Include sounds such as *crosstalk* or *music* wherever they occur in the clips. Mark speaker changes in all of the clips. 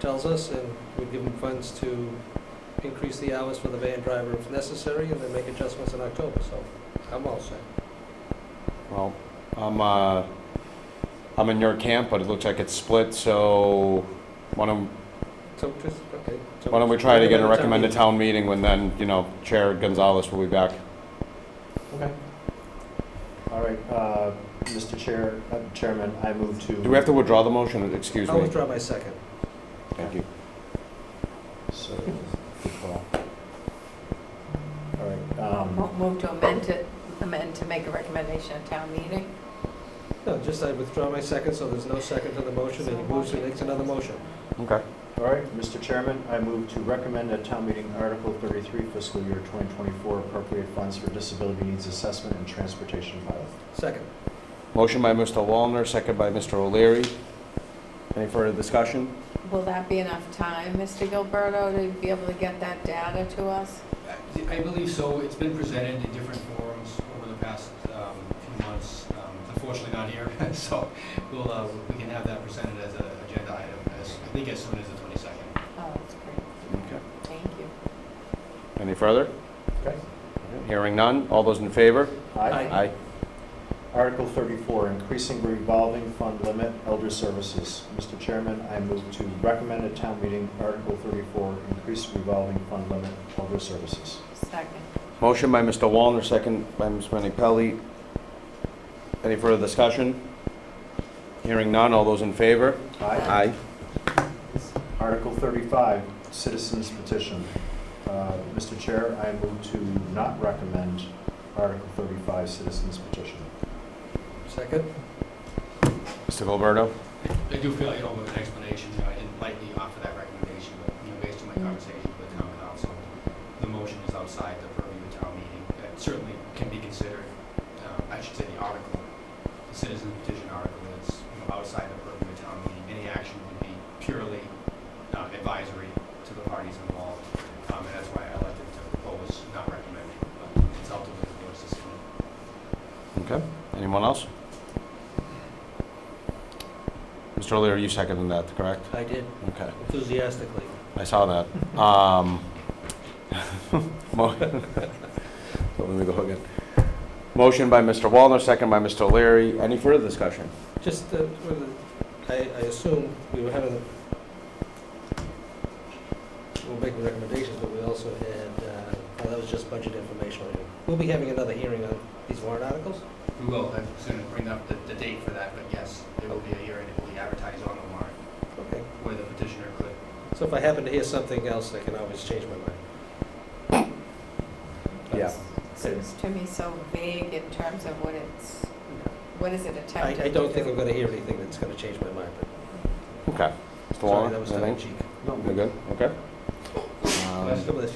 Speaker 1: tells us, and we give them funds to increase the hours for the van driver if necessary, and then make adjustments in October, so I'm all set.
Speaker 2: Well, I'm, uh, I'm in your camp, but it looks like it's split, so why don't,
Speaker 1: So just, okay. so-
Speaker 2: why don't we try to get a
Speaker 1: Recommend
Speaker 2: recommended
Speaker 1: a
Speaker 2: town meeting when then, you know, Chair Gonzalez will be back.
Speaker 3: Okay. All right, uh, Mr. Chair, uh, Chairman, I move to.
Speaker 2: Do we have to withdraw the motion? Excuse
Speaker 1: I'll
Speaker 2: me.
Speaker 1: withdraw my second.
Speaker 2: Thank you.
Speaker 3: So, good call. All right, um,
Speaker 4: Mo- Move to amend to, amend to make a recommendation at town meeting.
Speaker 1: No, just I withdraw my second, so there's no second to the motion, and he moves and makes another motion.
Speaker 2: Okay.
Speaker 3: all right, Mr. Chairman, I move to recommend at town meeting Article thirty-three fiscal year twenty twenty-four appropriate funds for disability needs assessment and transportation pilot.
Speaker 1: Second.
Speaker 2: Motion by Mr. Wallner, second by Mr. O'Leary. Any further discussion?
Speaker 4: Will that be enough time, Mr. Gilberto, to be able to get that data to us?
Speaker 5: I I believe so. It's been presented in different forums over the past um, few months. Um, Unfortunately, not here, *laughs* so we'll, uh, we can have that presented as an agenda item, as, I think as soon as the 22nd.
Speaker 4: Oh, that's great.
Speaker 2: Okay.
Speaker 4: Thank you.
Speaker 2: Any further?
Speaker 3: Okay.
Speaker 2: Hearing none. All those in favor?
Speaker 1: Aye.
Speaker 3: Article 34, increasing revolving fund limit, elder services. Mr. Chairman, I move to recommend at town meeting Article 34, increase revolving fund limit, elder services.
Speaker 4: Second.
Speaker 2: Motion by Mr. Wallner, second by Ms. Menni-Pelli. Any further discussion? Hearing none, all those in favor?
Speaker 3: Aye. Article 35, citizens petition. Uh, Mr. Chair, I move to not recommend Article 35, citizens petition.
Speaker 1: Second?
Speaker 2: Mr. Gilberto?
Speaker 5: I do feel I owe an explanation. I didn't lightly offer that recommendation, but, you know, based on my conversation with the town council, the motion is outside the purview of town meeting. That certainly can be considered, uh, I should say the article, the citizen petition article is, you know, outside the purview of town meeting. Any action would be purely uh, advisory to the parties involved. Um, And that's why I elected to propose not recommending, but it's up to the board's decision.
Speaker 2: Okay. Anyone else? Mr. O'Leary, you seconded that, correct?
Speaker 1: I did
Speaker 2: Okay.
Speaker 1: enthusiastically.
Speaker 2: I saw that. Um, *laughs* mo- *laughs* Let me go again. Motion by Mr. Wallner, second by Mr. O'Leary. Any further discussion?
Speaker 1: Just, uh, whether- I, I assume we were having, we were making recommendations, but we also had, uh, well, that was just budget information. We'll be having another hearing on these warrant articles?
Speaker 5: We will, I was going to bring up the, the date for that, but yes, there will be a hearing, it will be advertised on the warrant,
Speaker 1: Okay.
Speaker 5: where the petitioner could.
Speaker 1: So if I happen to hear something else, I can always change my mind.
Speaker 2: Yeah.
Speaker 4: Seems to me so vague in terms of what it's, what is it
Speaker 1: I,
Speaker 4: attempting to
Speaker 1: I
Speaker 4: do?
Speaker 1: don't think I'm gonna hear anything that's gonna change my mind, but
Speaker 2: Okay. Mr.
Speaker 1: sorry, that was
Speaker 2: Wallner,
Speaker 1: tongue in
Speaker 2: anything?
Speaker 1: cheek.
Speaker 2: You're good? Okay. Um,
Speaker 1: Come with us.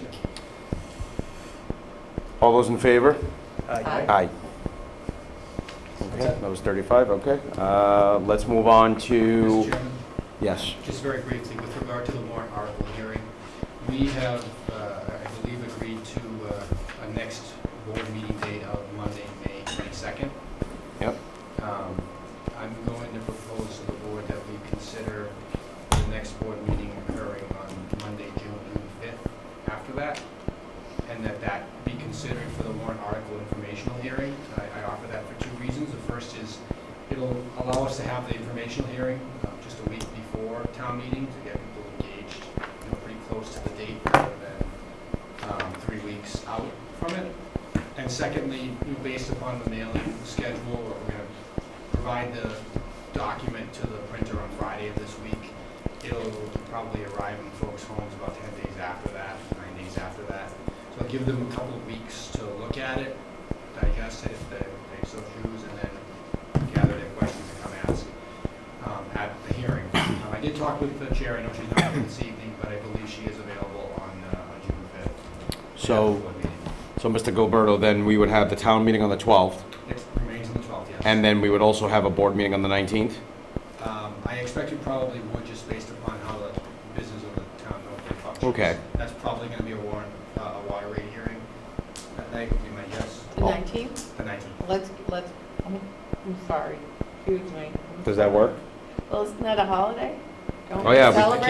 Speaker 2: All those in favor?
Speaker 1: Aye.
Speaker 2: Aye. Okay, that was 35, okay. Uh, Let's move on
Speaker 5: Mr.
Speaker 2: to,
Speaker 5: Chairman,
Speaker 2: yes.
Speaker 5: just very briefly, with regard to the warrant article hearing, we have, uh, I believe, agreed to uh, a next board meeting date of Monday, May 22nd.
Speaker 2: Yep.
Speaker 5: Um, I'm going to propose to the board that we consider the next board meeting occurring on Monday, June 5th, after that, and that that be considered for the warrant article informational hearing. I I offer that for two reasons. The first is it'll allow us to have the informational hearing uh, just a week before town meeting to get people engaged, you know, pretty close to the date rather than um, three weeks out from it. And secondly, you know, based upon the mailing schedule, we're going to provide the document to the printer on Friday of this week. It'll probably arrive in folks' homes about 10 days after that, nine days after that. So I'll give them a couple of weeks to look at it, digest it if they if they so choose, and then gather their questions and come ask um, at the hearing. *coughs* Um, I did talk with the chair, I know she's not here this evening, but I believe she is available on uh, on June 5th.
Speaker 2: So,
Speaker 5: Board meeting.
Speaker 2: so Mr. Gilberto, then we would have the town meeting on the 12th,
Speaker 5: It remains on the 12th, yes.
Speaker 2: and then we would also have a board meeting on the 19th?
Speaker 5: Um, I expect you probably would, just based upon how the business of the town normally functions.
Speaker 2: Okay.
Speaker 5: That's probably gonna be a warrant, uh, a water rate hearing. That, that would be my guess,
Speaker 4: The 19th?
Speaker 5: the nineteenth.
Speaker 4: Let's, let's, I'm I'm sorry, excuse me.
Speaker 2: Does that work?
Speaker 4: Well, isn't that a holiday? Don't
Speaker 2: Oh, yeah,
Speaker 4: we
Speaker 2: we-
Speaker 4: celebrate